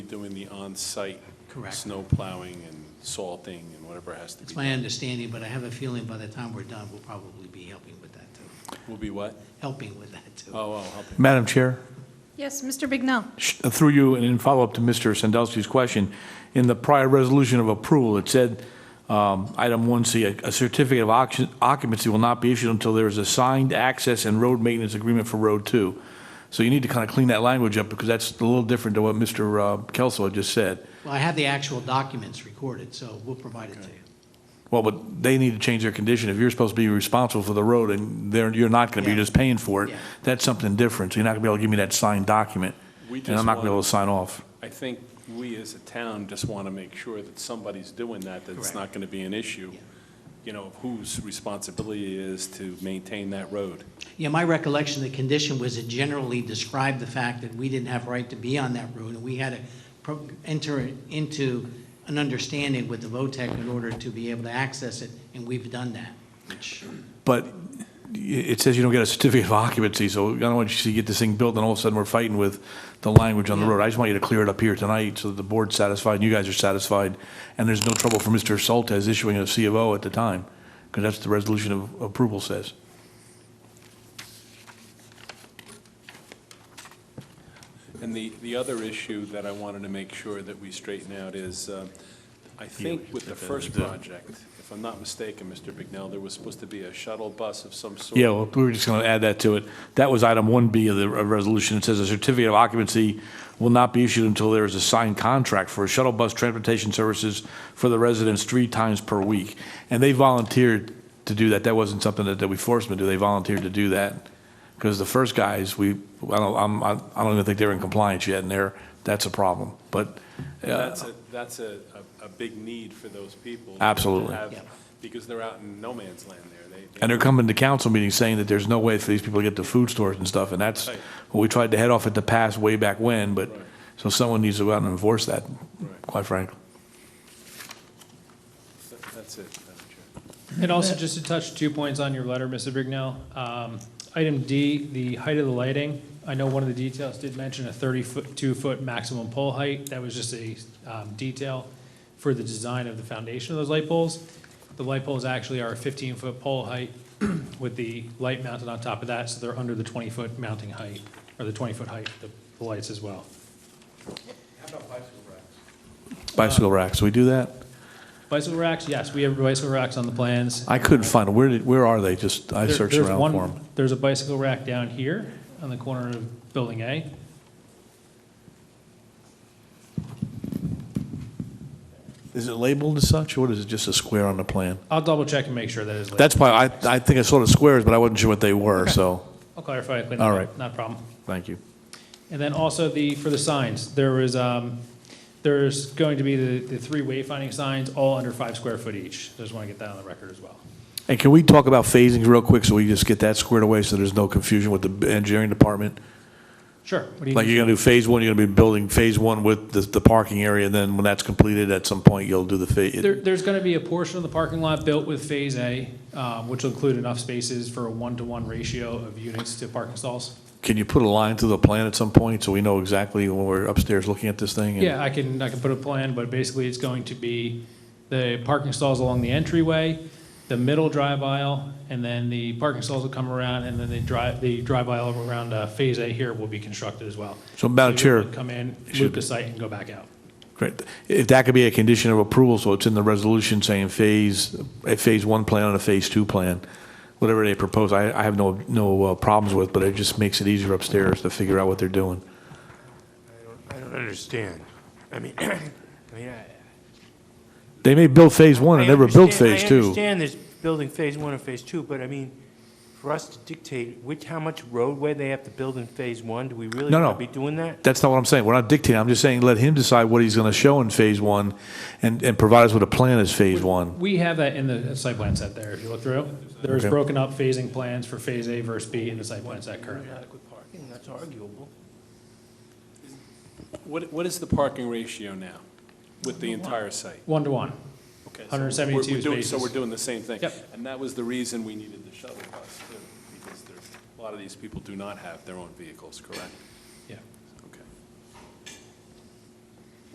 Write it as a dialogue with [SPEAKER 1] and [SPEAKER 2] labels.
[SPEAKER 1] doing the on-site
[SPEAKER 2] Correct.
[SPEAKER 1] snow plowing and salting and whatever has to be
[SPEAKER 2] It's my
[SPEAKER 1] done.
[SPEAKER 2] understanding, but I have a feeling by the time we're done, we'll probably be helping with that too,
[SPEAKER 1] Will be what?
[SPEAKER 2] helping with that too.
[SPEAKER 1] Oh, oh, helping.
[SPEAKER 3] Madam Chair,
[SPEAKER 4] Yes, Mr. Bignell.
[SPEAKER 3] sh- uh, through you, and in follow-up to Mr. Sandowski's question, in the prior resolution of approval, it said, um, item 1C, "A- "A certificate of occu- occupancy will not be issued until there is a signed access and road maintenance agreement for Road 2." So you need to kind of clean that language up, because that's a little different to what Mr. uh, Kelso had just said.
[SPEAKER 2] Well, I have the actual documents recorded, so we'll provide it to you.
[SPEAKER 3] Well, but they need to change their condition. If you're supposed to be responsible for the road and they're, you're not going to be
[SPEAKER 2] Yeah.
[SPEAKER 3] just paying for it,
[SPEAKER 2] Yeah.
[SPEAKER 3] that's something different. So You're not going to be able to give me that signed document,
[SPEAKER 1] We
[SPEAKER 3] and I'm
[SPEAKER 1] just
[SPEAKER 3] not going to be able
[SPEAKER 1] want-
[SPEAKER 3] to sign off.
[SPEAKER 1] I think we as a town just want to make sure that somebody's doing that, that it's
[SPEAKER 2] Correct.
[SPEAKER 1] not going to be an issue,
[SPEAKER 2] Yeah.
[SPEAKER 1] you know, of whose responsibility it is to maintain that road.
[SPEAKER 2] Yeah, my recollection, the condition was it generally described the fact that we didn't have right to be on that road, and we had to pro- enter into an understanding with the VOTEC in order to be able to access it, and we've done that, which,
[SPEAKER 3] But i- it says you don't get a certificate of occupancy, so I don't want you to get this thing built and all of a sudden we're fighting with the language on the road. I just want you to clear it up here tonight so that the board's satisfied and you guys are satisfied, and there's no trouble for Mr. Soltez issuing a C of O at the time, because that's what the resolution of approval says.
[SPEAKER 1] And the, the other issue that I wanted to make sure that we straighten out is, uh, I think with the first project, if I'm not mistaken, Mr. Bignell, there was supposed to be a shuttle bus of some sort.
[SPEAKER 3] Yeah, well, we were just going to add that to it. That was item 1B of the uh, resolution. It says a certificate of occupancy will not be issued until there is a signed contract for shuttle bus transportation services for the residents three times per week. And they volunteered to do that. That wasn't something that that we forced them to do. They volunteered to do that. Because the first guys, we, I don't, I'm- I I don't even think they're in compliance yet, and they're, that's a problem. But uh,
[SPEAKER 1] That's a, that's a, a a big need for those people. to
[SPEAKER 3] Absolutely.
[SPEAKER 1] have-
[SPEAKER 2] Yeah.
[SPEAKER 1] Because they're out in no man's land there. They-
[SPEAKER 3] And they're coming to council meetings saying that there's no way for these people to get to food stores and stuff, and that's
[SPEAKER 1] Right.
[SPEAKER 3] what we tried to head off at the pass way back when, but,
[SPEAKER 1] Right.
[SPEAKER 3] so someone needs to go out and enforce that,
[SPEAKER 1] Right.
[SPEAKER 3] quite frankly.
[SPEAKER 1] They- That's it, Madam Chair.
[SPEAKER 5] And also, just to touch two points on your letter, Mr. Bignell. Um, Item D, the height of the lighting. I know one of the details did mention a 32-foot maximum pole height. That was just a um, detail for the design of the foundation of those light poles. The light poles actually are a 15-foot pole height with the light mounted on top of that, so they're under the 20-foot mounting height, or the 20-foot height, of the lights as well.
[SPEAKER 3] Bicycle racks, do we do that?
[SPEAKER 5] Bicycle racks, yes, we have bicycle racks on the plans.
[SPEAKER 3] I couldn't find, 'em. where did, where are they? Just, I
[SPEAKER 5] There-
[SPEAKER 3] searched
[SPEAKER 5] there's
[SPEAKER 3] around
[SPEAKER 5] one-
[SPEAKER 3] for them.
[SPEAKER 5] There's a bicycle rack down here on the corner of Building A.
[SPEAKER 3] Is it labeled as such, or is it just a square on the plan?
[SPEAKER 5] I'll double check and make sure that is. labeled.
[SPEAKER 3] That's why, I, I think I saw the squares, but I wasn't sure what they were, so,
[SPEAKER 5] I'll clarify it. clean it
[SPEAKER 3] All
[SPEAKER 5] up,
[SPEAKER 3] right.
[SPEAKER 5] Not a problem.
[SPEAKER 3] thank you.
[SPEAKER 5] And then also the, for the signs, there was, um, there's going to be the, the three wayfinding signs, all under five square foot each. Just want to get that on the record as well.
[SPEAKER 3] And can we talk about phasings real quick, so we just get that squared away, so there's no confusion with the engineering department?
[SPEAKER 5] Sure. What do you
[SPEAKER 3] Like
[SPEAKER 5] need?
[SPEAKER 3] you're gonna do phase one, you're gonna be building phase one with the, the parking area, and then when that's completed, at some point, you'll do the
[SPEAKER 5] There,
[SPEAKER 3] phase.
[SPEAKER 5] there's going to be a portion of the parking lot built with Phase A, um, which will include enough spaces for a one-to-one ratio of units to parking stalls.
[SPEAKER 3] Can you put a line through the plan at some point, so we know exactly when we're upstairs looking at this thing? and-
[SPEAKER 5] Yeah, I can, I can put a plan, but basically it's going to be the parking stalls along the entryway, the middle drive aisle, and then the parking stalls will come around, and then the drive, the drive aisle around uh, Phase A here will be constructed as well.
[SPEAKER 3] So, Madam
[SPEAKER 5] you're gonna
[SPEAKER 3] Chair,
[SPEAKER 5] Come in,
[SPEAKER 3] should-
[SPEAKER 5] loop the site, and go back out.
[SPEAKER 3] Great. If that could be a condition of approval, so it's in the resolution saying phase, a phase one plan and a phase two plan, whatever they propose, I, I have no, no uh, problems with, but it just makes it easier upstairs to figure out what they're doing.
[SPEAKER 6] I don't understand. I mean, I mean, I.
[SPEAKER 3] They may build phase one and
[SPEAKER 6] I
[SPEAKER 3] never build
[SPEAKER 6] understand-
[SPEAKER 3] phase
[SPEAKER 6] I
[SPEAKER 3] two.
[SPEAKER 6] understand there's building phase one and phase two, but I mean, for us to dictate which, how much roadway they have to build in phase one, do we really
[SPEAKER 3] No,
[SPEAKER 6] want
[SPEAKER 3] no.
[SPEAKER 6] to be doing that?
[SPEAKER 3] That's not what I'm saying. We're not dictating. I'm just saying let him decide what he's going to show in phase one and, and provide us with a plan as phase one.
[SPEAKER 5] We have that in the site plan set there, if you look through. There's
[SPEAKER 3] Okay.
[SPEAKER 5] broken up phasing plans for Phase A versus B in the site plan set currently.
[SPEAKER 6] Adequate parking, that's arguable.
[SPEAKER 1] What, what is the parking ratio now with the entire site?
[SPEAKER 5] One-to-one.
[SPEAKER 1] Okay, so we're-
[SPEAKER 5] 172
[SPEAKER 1] we're doing- So
[SPEAKER 5] spaces.
[SPEAKER 1] we're doing the same thing.
[SPEAKER 5] Yep.
[SPEAKER 1] And that was the reason we needed the shuttle bus, too, because there's, a lot of these people do not have their own vehicles, correct?